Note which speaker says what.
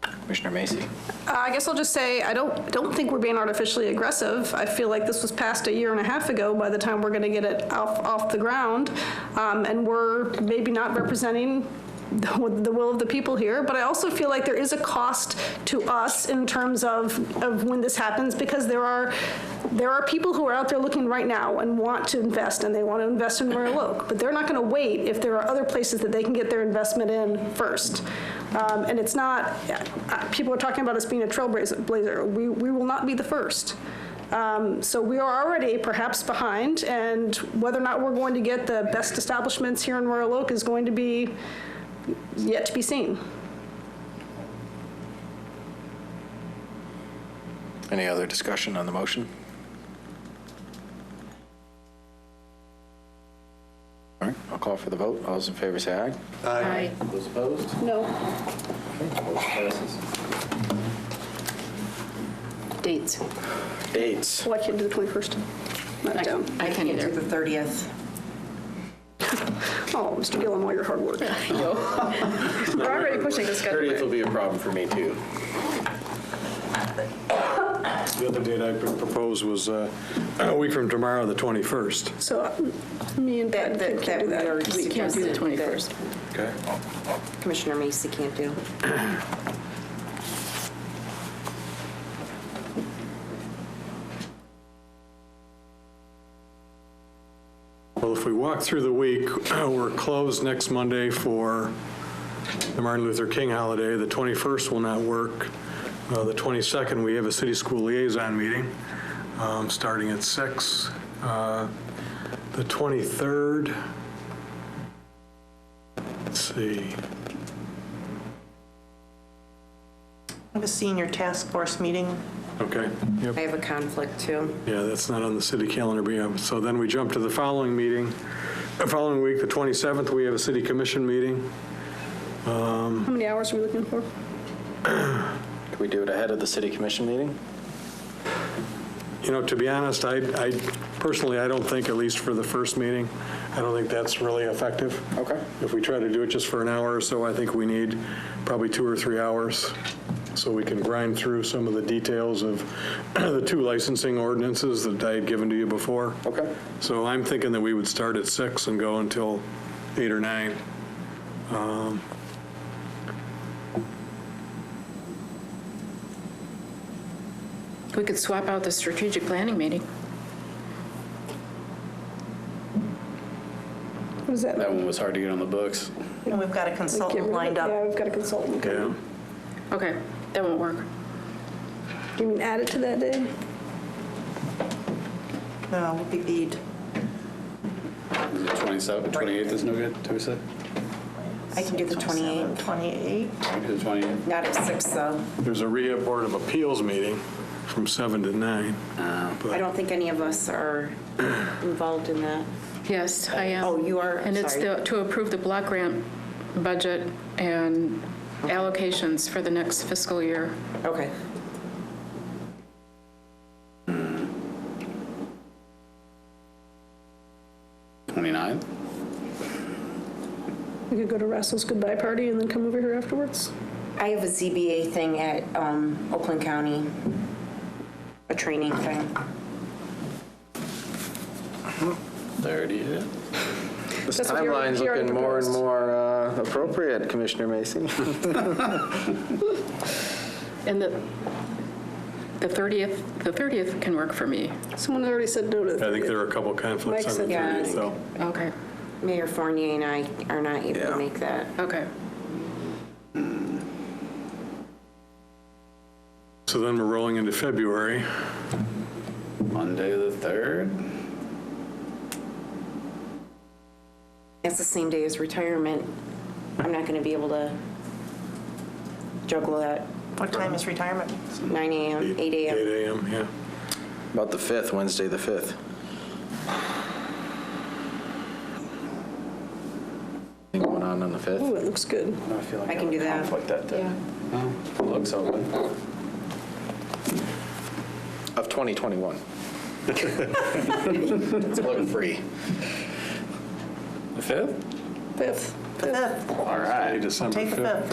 Speaker 1: Commissioner Macy.
Speaker 2: Uh, I guess I'll just say, I don't, don't think we're being artificially aggressive. I feel like this was passed a year and a half ago by the time we're gonna get it off, off the ground. Um, and we're maybe not representing the the will of the people here, but I also feel like there is a cost to us in terms of, of when this happens, because there are, there are people who are out there looking right now and want to invest, and they want to invest in Royal Oak, but they're not gonna wait if there are other places that they can get their investment in first. Um, And it's not, uh, people are talking about us being a trailblazer, blazer. we, we will not be the first. Um, So we are already perhaps behind, and whether or not we're going to get the best establishments here in Royal Oak is going to be yet to be seen.
Speaker 1: Any other discussion on the motion? All right, I'll call for the vote. All those in favor say aye.
Speaker 3: Aye.
Speaker 1: Those opposed?
Speaker 2: No.
Speaker 1: Motion passes.
Speaker 3: Dates.
Speaker 1: Dates.
Speaker 2: Well, I can't do the 21st. Not down.
Speaker 3: I can
Speaker 4: Can't do
Speaker 3: either.
Speaker 4: the 30th.
Speaker 2: Oh, Mr. Gillum, all your hard work.
Speaker 3: We're already pushing this guy.
Speaker 1: 30th will be a problem for me, too.
Speaker 5: The other date I proposed was uh, a week from tomorrow, the 21st.
Speaker 2: So um, me and Brad
Speaker 4: that-
Speaker 2: can't
Speaker 4: that
Speaker 2: do
Speaker 4: we
Speaker 2: that.
Speaker 4: already
Speaker 2: We can't do
Speaker 3: The
Speaker 2: that.
Speaker 3: 21st.
Speaker 5: Okay.
Speaker 4: Commissioner Macy can't do.
Speaker 5: Well, if we walk through the week, uh, we're closed next Monday for the Martin Luther King holiday. The 21st will not work. Uh, The 22nd, we have a city school liaison meeting, um, starting at six. Uh The 23rd, let's see,
Speaker 6: I have a senior task force meeting
Speaker 5: okay, yep.
Speaker 4: I have a conflict too.
Speaker 5: Yeah, that's not on the city calendar, but yeah, so then we jump to the following meeting, the following week, the 27th, we have a city commission meeting.
Speaker 2: How many hours are we looking for?
Speaker 1: Can we do it ahead of the city commission meeting?
Speaker 5: You know, to be honest, I, I personally, I don't think, at least for the first meeting, I don't think that's really effective.
Speaker 1: Okay.
Speaker 5: If we try to do it just for an hour or so, I think we need probably two or three hours so we can grind through some of the details of the two licensing ordinances that I had given to you before.
Speaker 1: Okay.
Speaker 5: So I'm thinking that we would start at six and go until eight or nine. Um,
Speaker 3: We could swap out the strategic planning meeting.
Speaker 2: What is that?
Speaker 1: That one was hard to get on the books.
Speaker 6: and we've got
Speaker 2: Get rid
Speaker 6: a
Speaker 2: of
Speaker 6: consultant
Speaker 2: it.
Speaker 6: lined
Speaker 2: Yeah,
Speaker 6: up.
Speaker 2: we've got a consultant.
Speaker 5: Yeah,
Speaker 3: Okay, that won't work.
Speaker 2: Do you mean add it to that day?
Speaker 6: No, Uh, we'll be beat.
Speaker 1: Is it 27, 28th is no good, Teresa?
Speaker 4: I can do the 28th.
Speaker 6: 28.
Speaker 1: Is it 28th?
Speaker 4: Not at 6 though.
Speaker 5: there's a rehab board of appeals meeting from seven to nine.
Speaker 4: I don't think any of us are involved in that.
Speaker 3: Yes, I am.
Speaker 4: Oh, you are? I'm
Speaker 3: And it's
Speaker 4: sorry.
Speaker 3: the- to approve the block grant budget and allocations for the next fiscal year.
Speaker 4: Okay.
Speaker 7: Twenty-nine?
Speaker 2: We could go to Russell's goodbye party and then come over here afterwards.
Speaker 4: I have a ZBA thing at um, Oakland County, a training thing.
Speaker 7: Thirty, yeah.
Speaker 1: This
Speaker 2: That's what he already-
Speaker 1: timeline's
Speaker 2: he already
Speaker 1: looking more and
Speaker 2: proposed.
Speaker 1: more uh, appropriate, Commissioner Macy.
Speaker 3: And the, the 30th, the 30th can work for me.
Speaker 2: Someone already said no to
Speaker 5: I
Speaker 2: that.
Speaker 5: think there are a couple conflicts on the
Speaker 2: Mike said-
Speaker 5: 30th, so.
Speaker 3: Okay,
Speaker 4: Mayor Fournier and I are not able to make that.
Speaker 3: okay.
Speaker 5: So then we're rolling into February.
Speaker 7: Monday the third?
Speaker 4: That's the same day as retirement. I'm not going to be able to juggle that.
Speaker 6: What time is retirement?
Speaker 4: 9 AM, 8 AM.
Speaker 5: 8 a.m., yeah.
Speaker 1: About the 5th, Wednesday, the 5th. Anything going on on the 5th?
Speaker 2: Ooh, it looks good.
Speaker 7: I feel like
Speaker 4: I can do that.
Speaker 7: Conflict that day. Oh, Looks open.
Speaker 1: Of 2021. It's looking free.
Speaker 7: The fifth?
Speaker 2: Fifth.
Speaker 6: The 5th.
Speaker 7: All right.
Speaker 5: December
Speaker 6: Take the
Speaker 5: 5th.
Speaker 6: fifth.